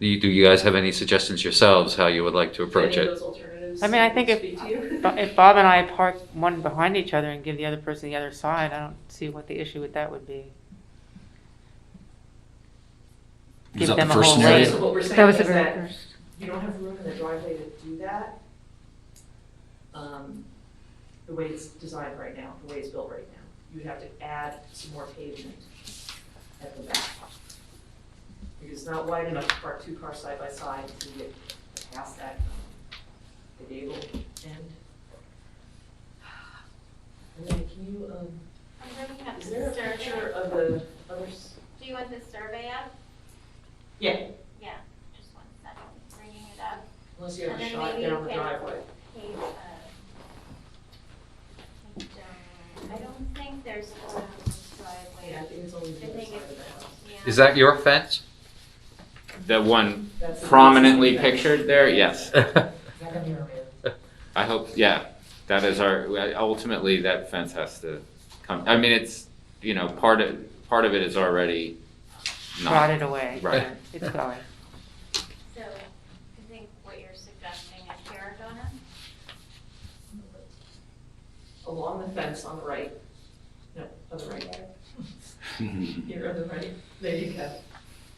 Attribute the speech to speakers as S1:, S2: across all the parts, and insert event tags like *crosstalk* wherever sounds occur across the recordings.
S1: Do you, do you guys have any suggestions yourselves how you would like to approach
S2: Any of
S1: it?
S2: those alternatives
S3: I mean, I think if,
S2: speak to you?
S3: Bo-
S2: *laughs*
S3: if Bob and I park one behind each other and give the other person the other side, I don't see what the issue with that would be. Give
S4: Is that
S3: them
S4: the
S3: a
S4: first
S3: whole
S2: Right,
S3: lane.
S4: scenario?
S2: So what we're
S5: That
S2: saying
S5: was
S2: is
S5: the very
S2: that
S5: first.
S2: you don't have room in the driveway to do that. um, The way it's designed right now, the way it's built right now, you'd have to add some more pavement at the back. Because it's not wide enough to park two cars side by side to get past that, um, the gable end. And then can you, um,
S6: I'm bringing up
S2: is
S6: the
S2: there a
S6: survey.
S2: picture of the others?
S6: Do you want the survey up?
S2: Yeah,
S6: Yeah, just one second, bringing it up.
S2: unless you have
S6: And
S2: a
S6: then
S2: shot
S6: maybe
S2: down
S6: you
S2: the
S6: can-
S2: driveway.
S6: Page, uh, page, uh, I don't think there's a
S2: Yeah, I
S6: driveway.
S2: think it's only
S6: I
S2: the other
S6: think
S2: side of the house.
S6: it's-
S7: Is
S6: yeah.
S7: that your fence? The one
S2: That's the-
S7: prominently pictured there? Yes. *laughs*
S2: It's not gonna be our man.
S7: I hope, yeah, that is our, ultimately, that fence has to come, I mean, it's, you know, part of, part of it is already not.
S3: Rot it away.
S7: Right.
S3: It's going.
S6: So I think what you're suggesting is Paragona?
S2: Along the fence on the right. No, on the right. Here on the right. There you go.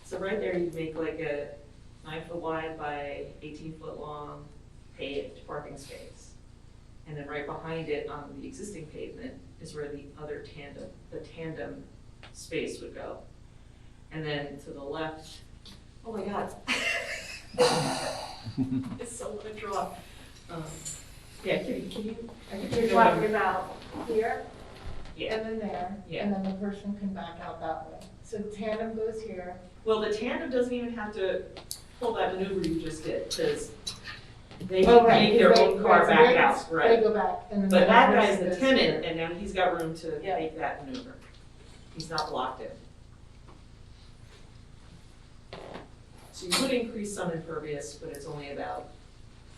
S2: So right there, you'd make like a nine foot wide by eighteen foot long paved parking space. And then right behind it on the existing pavement is where the other tandem, the tandem space would go. And then to the left, oh my God. *laughs* It's so what a draw. Um, Yeah, can you, can you? I think
S8: You're talking about here,
S2: Yeah.
S8: and then there,
S2: Yeah.
S8: and then the person can back out that way. So tandem goes here,
S2: Well, the tandem doesn't even have to pull that maneuver you just did, because they
S8: Oh,
S2: can
S8: right,
S2: make their
S8: they-
S2: own car
S8: right, so
S2: back
S8: they-
S2: out,
S8: they
S2: right?
S8: go back, and then.
S2: But that
S8: other
S2: guy's
S8: person
S2: the
S8: goes
S2: tenant,
S8: here.
S2: and now he's got room to
S3: Yeah.
S2: make that maneuver. He's not blocked in. So you would increase some impervious, but it's only about,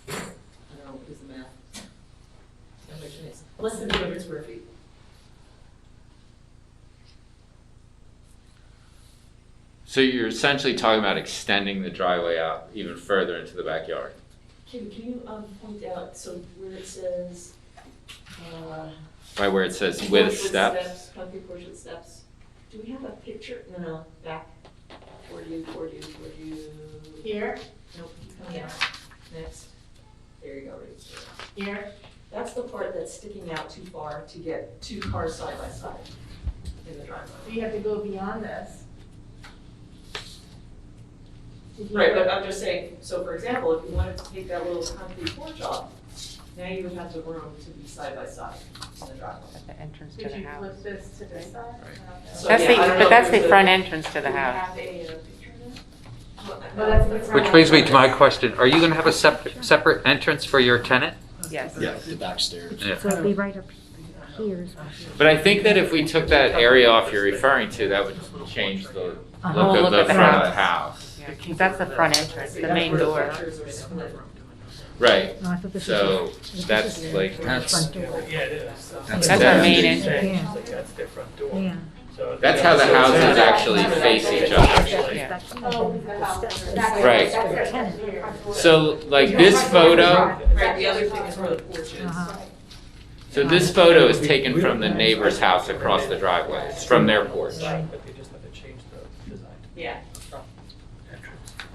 S2: I don't know, what is the math? How much it is? Less than two hundred square feet.
S7: So you're essentially talking about extending the driveway out even further into the backyard.
S2: Can, can you, um, point out, so where it says, uh,
S7: Right where it says
S2: Porch
S7: with steps.
S2: Concrete porch with steps. Do we have a picture? No, no, back. For you, for you, for you.
S8: Here,
S2: Nope, keep coming out. Next. There you go, right there.
S8: here,
S2: That's the part that's sticking out too far to get two cars side by side in the driveway.
S8: so you have to go beyond this. Did you-
S2: Right, but I'm just saying, so for example, if you wanted to take that little concrete porch off, now you would have the room to be side by side in the driveway.
S3: At the entrance to
S8: Did
S3: the
S8: you
S3: house.
S8: flip this to this side?
S7: Right.
S8: I don't know.
S2: So,
S3: That's
S2: yeah,
S3: the,
S2: I don't know
S3: but
S2: if
S3: that's the
S2: there's a-
S3: front entrance to
S8: Do
S3: the
S8: you
S3: house.
S8: have a, uh, picture of this?
S2: Well, that's the
S1: Which brings me to my question, are you gonna have a separate, separate entrance for your tenant?
S3: Yes.
S4: Yeah, the back stairs.
S1: Yeah.
S5: So it'd be right up here is what
S7: But I think that if we took that area off you're referring to, that would change the
S3: whole
S7: look of the front of the house.
S3: Yeah, 'cause that's the front entrance, the main door.
S2: Pictures are split.
S7: Right,
S5: No, I thought this was.
S7: so
S5: this
S7: that's
S5: is
S7: like-
S5: the
S4: That's-
S5: Front door,
S9: Yeah, it is.
S4: That's
S3: That's
S7: our
S3: main
S9: It's
S3: entrance.
S9: saying, it's like, That's their front door.
S5: yeah.
S9: So-
S7: that's how the
S9: So it's
S7: houses
S9: not-
S7: actually face each other.
S3: Yeah.
S5: That's the
S8: Oh, the house.
S5: front
S8: That's-
S5: door.
S7: Right.
S8: that's
S5: Tenant.
S8: it, here.
S7: So like this photo,
S2: Right, the other thing is where the porch is.
S5: Uh-huh.
S7: So this photo is taken from the neighbor's house across the driveway, It's from their porch.
S9: But they just have to change the design.
S2: Yeah,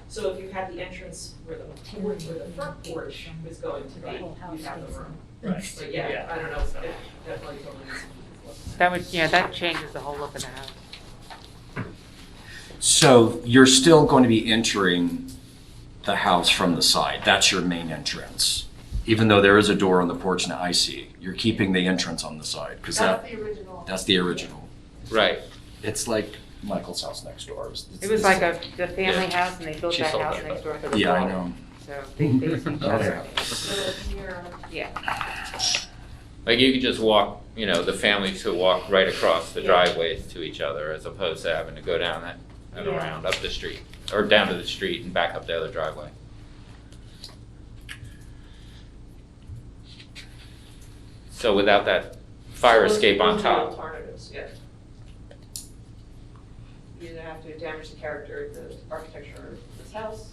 S2: so if you had the entrance where the porch, where the front porch was going to be, you'd have the room.
S9: Right.
S2: But yeah, I don't know, if
S9: Yeah.
S2: that probably totally is.
S3: That would, yeah, that changes the whole look of the house.
S4: So you're still going to be entering the house from the side. That's your main entrance. Even though there is a door on the porch now, I see. You're keeping the entrance on the side because that,
S8: That's the original.
S4: that's the original.
S7: Right,
S4: It's like Michael's house next door.
S3: It was like a, the family house and they built
S7: She
S3: that
S7: sold
S3: house
S7: me,
S3: next door for the
S4: Yeah, I
S3: daughter.
S4: know.
S3: So they, they
S4: *laughs*
S3: were each other.
S2: So here,
S3: Yeah,
S7: like you could just walk, you know, the families could walk right across the driveways to each other as opposed to having to go down that and
S8: Yeah.
S7: around up the street, or down to the street and back up the other driveway. So without that fire
S2: those-
S7: escape on
S2: those are
S7: top,
S2: Alternatives, yeah. You either have to damage the character of the architecture of this house,